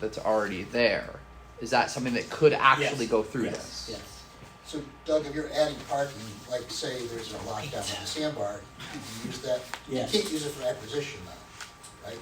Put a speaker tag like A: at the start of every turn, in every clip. A: that's already there. Is that something that could actually
B: Yes.
A: go through
B: Yes,
A: this?
B: Yes.
C: So Doug, if you're adding parking, like say there's a lockdown on the sandbar, you use that, you
B: Yes.
C: can't use it for acquisition though, right?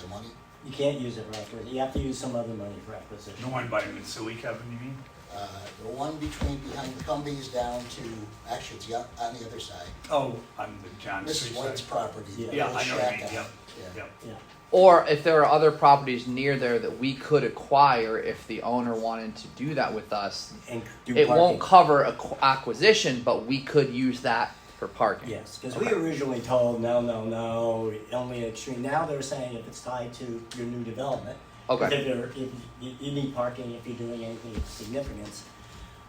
C: The money?
B: You can't use it for acquisition, you have to use some other money for acquisition.
D: The one by Mitsui, Kevin, you mean?
C: Uh, The one between, behind the Cumbies down to, actually it's the o- on the other side.
D: Oh, on the John
C: Mrs.
D: Street
C: White's
D: side.
C: property. the
B: Yeah.
D: Yeah,
C: little
D: I know what
C: shack
D: you mean,
C: out.
D: yep,
C: Yeah.
D: yep.
B: Yeah,
A: Or if there are other properties near there that we could acquire if the owner wanted to do that with us,
B: and do
A: it won't
B: parking.
A: cover acqu- acquisition, but we could use that for parking.
B: Yes, because we originally told, no, no, no, only extreme, now they're saying if it's tied to your new development.
A: Okay.
B: If there, if you, you need parking, if you're doing anything of significance.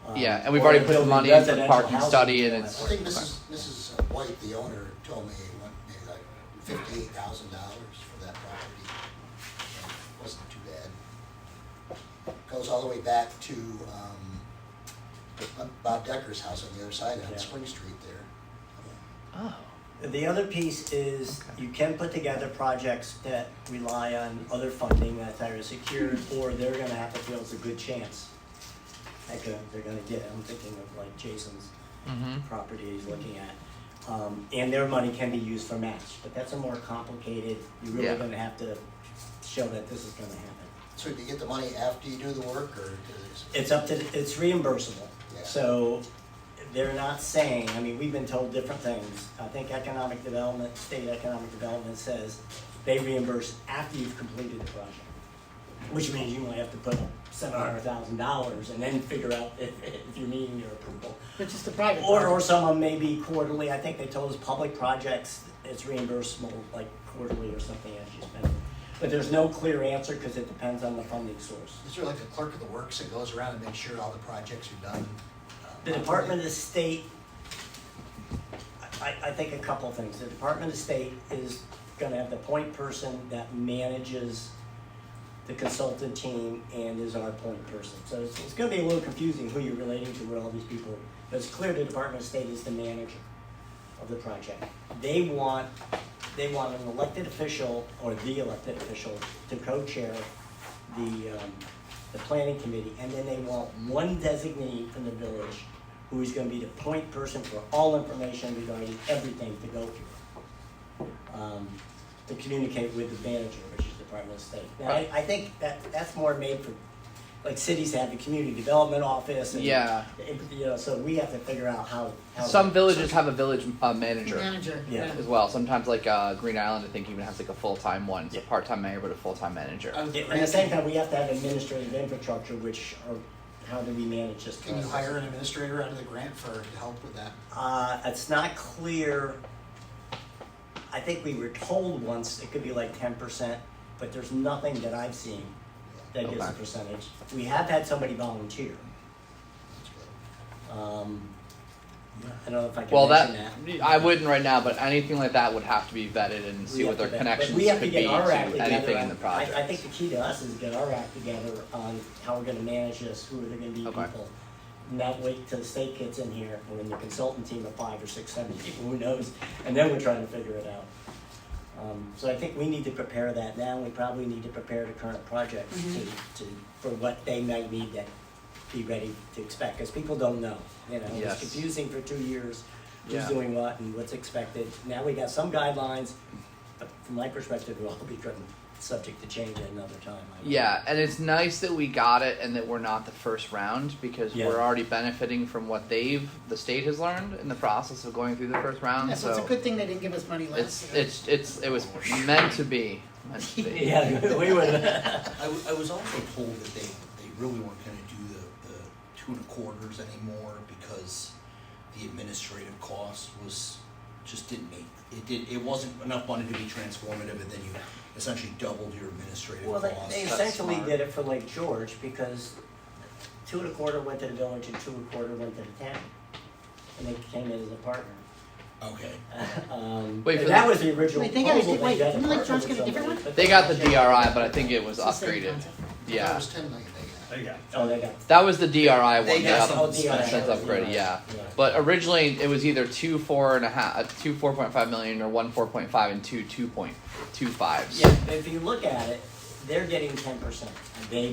B: um,
A: Yeah, and we've
B: or
A: already
B: if
A: put
B: you're
A: money
B: doing
A: in for the
B: residential
A: parking
B: housing,
A: study and it's-
C: I think Mrs. Mrs. White, the owner, told me, it went maybe like fifty-eight thousand dollars for that property. It Wasn't too bad. Goes all the way back to, um, Bob Decker's house on the other side on
B: Yeah.
C: Spring Street there.
A: Oh.
B: The other piece is you can put together projects that rely on other funding that's either secured or they're gonna have to feel it's a good chance. That go- they're gonna get, I'm thinking of like Jason's
A: Mm-hmm.
B: property he's looking at. Um, and their money can be used for match, but that's a more complicated, you're
A: Yeah.
B: really gonna have to show that this is gonna happen.
C: So do you get the money after you do the work or? is it-
B: It's up to, it's reimbursable.
C: Yeah.
B: So they're not saying, I mean, we've been told different things. I think economic development, state economic development says they reimburse after you've completed the project. Which means you only have to put up seven hundred thousand dollars and then figure out if, if you're meeting your approval.
E: Which is the private
B: Or, or
E: part.
B: some of them may be quarterly, I think they told us public projects, it's reimbursable like quarterly or something as you spend. it. But there's no clear answer because it depends on the funding source.
C: Is there like a clerk of the works that goes around and makes sure all the projects are done? uh,
B: The
C: properly?
B: Department of State, I, I think a couple of things. The Department of State is gonna have the point person that manages the consultant team and is our point person. So it's, it's gonna be a little confusing who you're relating to, with all these people, but it's clear the Department of State is the manager of the project. They want, they want an elected official, or the elected official, to co-chair the, um, the planning committee, and then they want one designee from the village who is gonna be the point person for all information regarding everything to go through. Um, to communicate with the manager, which is the Department of State. Now, I, I think that, that's more made for, like, cities have the community development office and.
A: Yeah.
B: and, You know, so we have to figure out how. how-
A: Some villages have a village uh, manager
E: Manager,
B: Yeah.
E: yeah.
A: as well. Sometimes, like uh, Green Island, I think even has like a full time one. It's a
B: Yeah.
A: part time mayor, but a full time manager.
C: On the
B: Yeah, At the same time, we have to have administrative infrastructure, which are, how do we manage this
C: Can
B: process?
C: you hire an administrator out of the grant for, to help with that?
B: Uh, it's not clear, I think we were told once it could be like ten percent, but there's nothing that I've seen that gives a
A: Okay.
B: percentage. We have had somebody volunteer,
C: That's good.
B: um, I don't know if I can
A: well,
B: mention
A: that I wouldn't right now, but anything like that would have to be vetted and see
B: We
A: what
B: have
A: their
B: to- but
A: connections
B: we have to
A: could
B: get
A: be
B: our
A: to
B: act together
A: anything in
B: on-
A: the project.
B: I, I think the key to us is get our act together on how we're gonna manage this, who are there gonna be
A: Okay.
B: people. Not wait till the state gets in here, or when the consultant team of five or six, seven people, who knows, and then we're trying to figure it out. Um, so I think we need to prepare that now, we probably need to prepare the current projects to, to, for what they might need to be ready to expect, cause people don't know, you know,
A: Yes.
B: it's confusing for two years, who's
A: Yeah.
B: doing what and what's expected. Now we got some guidelines, but from my perspective, it'll all be driven, subject to change at another time. I would-
A: Yeah, and it's nice that we got it and that we're not the first round because
B: Yeah.
A: we're already benefiting from what they've the state has learned in the process of going through the first round.
E: Yeah,
A: so
E: So it's a good thing they didn't give us money last
A: it's
E: year.
A: it's it's it was meant to be. Meant to be.
B: Yeah, we would,
F: I, w- I was also told that they, they really weren't gonna do the, the two and a quarters anymore because the administrative cost was, just didn't make, it did, it wasn't enough money to be transformative, and then you essentially doubled your administrative
B: well, they, they
F: costs.
A: That's
B: essentially
A: smart.
B: did it for Lake George because two and a quarter went to the village and two and a quarter went to the town. And they came in as a partner.
F: Okay,
B: Um,
A: Wait, for
B: and that
A: the-
B: was the original
E: Wait, they got a
B: proposal,
E: di- wait,
B: they got a
E: didn't Lake
B: partner
E: George
B: with
E: get a different
B: somebody,
E: one?
B: but
A: They got the DRI, but I think it was
E: It's the same
A: upgraded.
E: concept.
C: I thought it
A: Yeah,
C: was ten million they got.
D: There you go.
B: Oh, they got,
A: that was the DRI one.
F: They
A: that
F: got
A: up-
B: oh,
F: something
B: DRI.
A: that's upgraded. Yeah.
B: Yeah.
A: But originally it was either two four and a half, uh, two four point five million, or one four point five and two two point two five.
B: Yeah, if you look at it, they're getting ten percent, and they